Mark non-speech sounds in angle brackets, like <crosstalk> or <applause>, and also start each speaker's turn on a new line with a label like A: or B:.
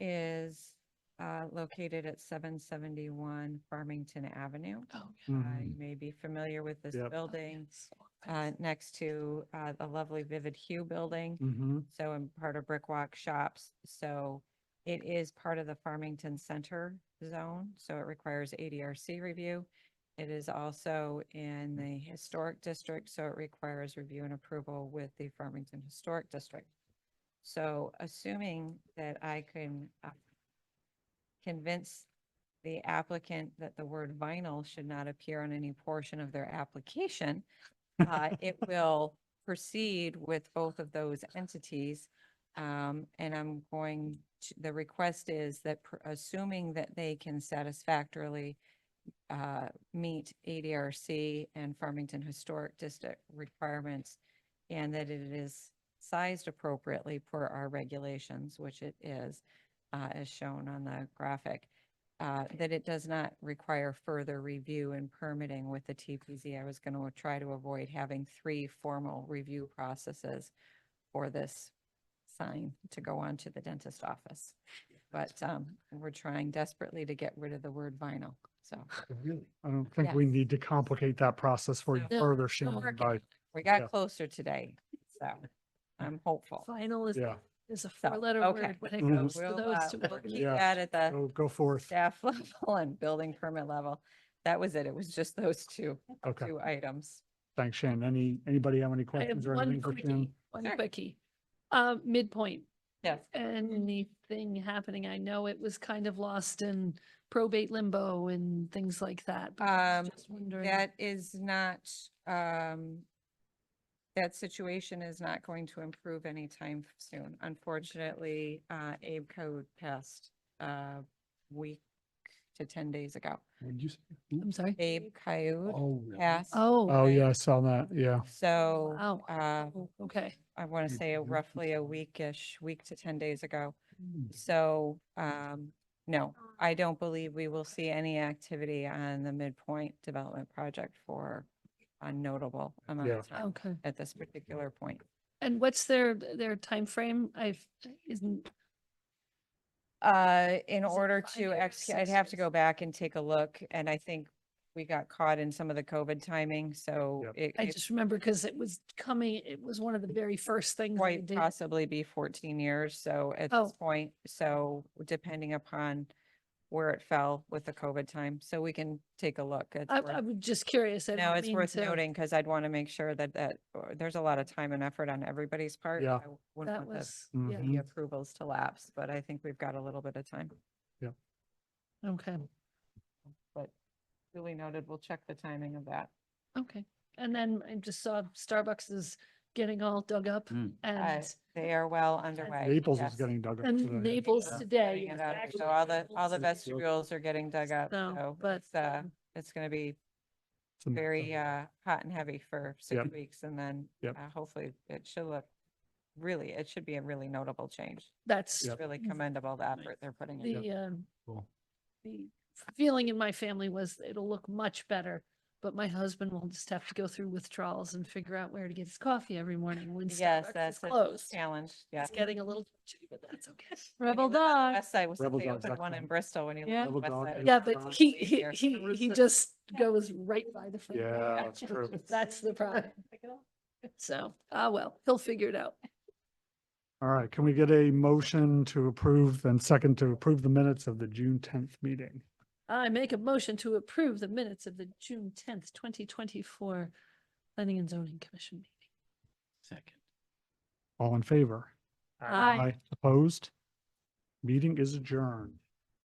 A: uh, located at seven seventy-one Farmington Avenue.
B: Oh,
A: Uh,
C: Mhm.
A: You may be familiar with this
C: Yep.
A: building, uh, next to, uh, the lovely Vivid Hue Building.
C: Mhm.
A: Um, So I'm part of Brickwalk Shops, so it is part of the Farmington Center zone, so it requires ADRC review. It is also in the Historic District, so it requires review and approval with the Farmington Historic District. So assuming that I can uh, convince the applicant that the word vinyl should not appear on any portion of their application, uh, it will proceed with both of those entities. Um, and I'm going, to- the request is that pr- assuming that they can satisfactorily uh, meet ADRC and Farmington Historic District requirements and that it is sized appropriately per our regulations, which it is, uh, as shown on the graphic, uh, that it does not require further review and permitting with the TPZ. I was going to try to avoid having three formal review processes for this sign to go on to the dentist office. But um, we're trying desperately to get rid of the word vinyl, so
C: Really? I don't think we
A: Yes.
C: need to complicate that process for you
A: No,
C: further,
A: we're
C: Shannon,
A: working
C: by,
A: we
C: Yeah.
A: got closer today, so I'm hopeful.
B: Final is,
C: yeah.
B: is a
A: So,
B: four-letter
A: okay.
B: word when it
C: Mhm.
B: goes to
A: We'll, uh,
B: those two
A: we'll
B: words.
A: keep
C: Yeah.
A: that at the
C: Go, go forth.
A: staff <laughs> level and building permit level. That was it. It was just those two,
C: Okay.
A: two items.
C: Thanks, Shannon. Any, anybody have any
B: I have
C: questions or
B: one
C: anything for
B: quickie,
C: Shannon?
B: one
A: Sure.
B: quickie. Uh, midpoint,
A: Yes.
B: anything happening? I know it was kind of lost in probate limbo and things like that. but I was
A: Um,
B: just wondering-
A: That is not, um, that situation is not going to improve anytime soon. Unfortunately, uh, Abe Code passed a week to ten days ago.
C: What'd you say?
B: I'm sorry.
A: Abe Coyote
C: Oh, really?
A: passed.
B: Oh,
C: Oh, yeah, I saw that. Yeah.
A: So,
B: wow.
A: uh,
B: Oh, Okay.
A: I want to
C: Abe
A: say
C: Coyote
A: roughly a
C: passed.
A: weekish, week to ten days ago. So, um, no, I don't believe we will see any activity on the midpoint development project for a notable amount
C: Yeah.
A: of time
B: Okay.
A: at this particular point.
B: And what's their, their timeframe? I've, isn't,
A: Uh, in
B: Is it
A: order
B: five
A: to
B: years,
A: ex, I'd
B: six
A: have to
B: years?
A: go back and take a look, and I think we got caught in some of the COVID timing, so
C: Yep.
A: it
B: I
A: it
B: just remember because it was coming, it was one of the very first things they
A: quite
B: did.
A: possibly be fourteen years, so at
B: Oh.
A: this point, so depending upon where it fell with the COVID time, so we can take a look. It's
B: I,
A: worth-
B: I'm just curious. I
A: No,
B: didn't
A: it's
B: mean
A: worth
B: to-
A: noting because I'd want to make sure that that, or- there's a lot of time and effort on everybody's part.
C: Yeah.
A: I w- wouldn't
B: That
A: want the-
B: was, yeah,
C: Mhm.
A: The approvals to lapse, but I think we've got a little bit of time.
B: okay,
A: But duly noted, we'll check the timing of that.
B: okay. And then I just saw Starbucks is getting all dug up
C: Mm.
B: and,
A: Uh, They are well underway.
C: Naples is
A: yes.
C: getting dug up. today.
B: and Naples
A: Yeah.
B: today.
A: Getting
B: yes,
A: it out there.
B: actually
A: So all the, all the
B: Naples.
A: vestibules are getting dug up,
B: So,
A: so
B: but,
A: it's, uh,
B: um,
A: it's gonna be
C: It's a mess.
A: very, uh, hot and heavy for six
C: Yep.
A: weeks and then
C: Yep.
A: uh, hopefully it should look, really, it should be a really notable change.
B: That's
C: Yep.
A: Really
B: Mm.
A: commendable the effort they're putting in.
B: the, um,
C: Cool.
B: the feeling in my family was it'll look much better. But my husband will just have to go through withdrawals and figure out where to get his coffee every morning when
A: Yes,
B: Starbucks is
A: that's a
B: closed.
A: challenge, yeah.
B: It's getting a little, touchy, but that's okay.
A: Rebel dog. West side was,
C: Rebel
A: they
C: dog's
A: opened one in
C: excellent.
A: Bristol when you. lived
C: Yeah.
A: on the
C: Rebel
A: west
C: dog
A: side.
C: is
B: Yeah, but
C: Dog
B: he,
A: is
B: he,
A: here.
B: he, he just goes right by the. front door.
C: Yeah, that's true.
B: <laughs> That's the problem. So, ah, well, he'll figure it out.
C: All right, can we get a motion to approve and second to approve the minutes of the June tenth meeting?
B: I make a motion to approve the minutes of the June tenth, twenty twenty-four Planning and Zoning Commission meeting.
D: Second.
C: All in favor?
B: Aye.
C: Opposed? Meeting is adjourned.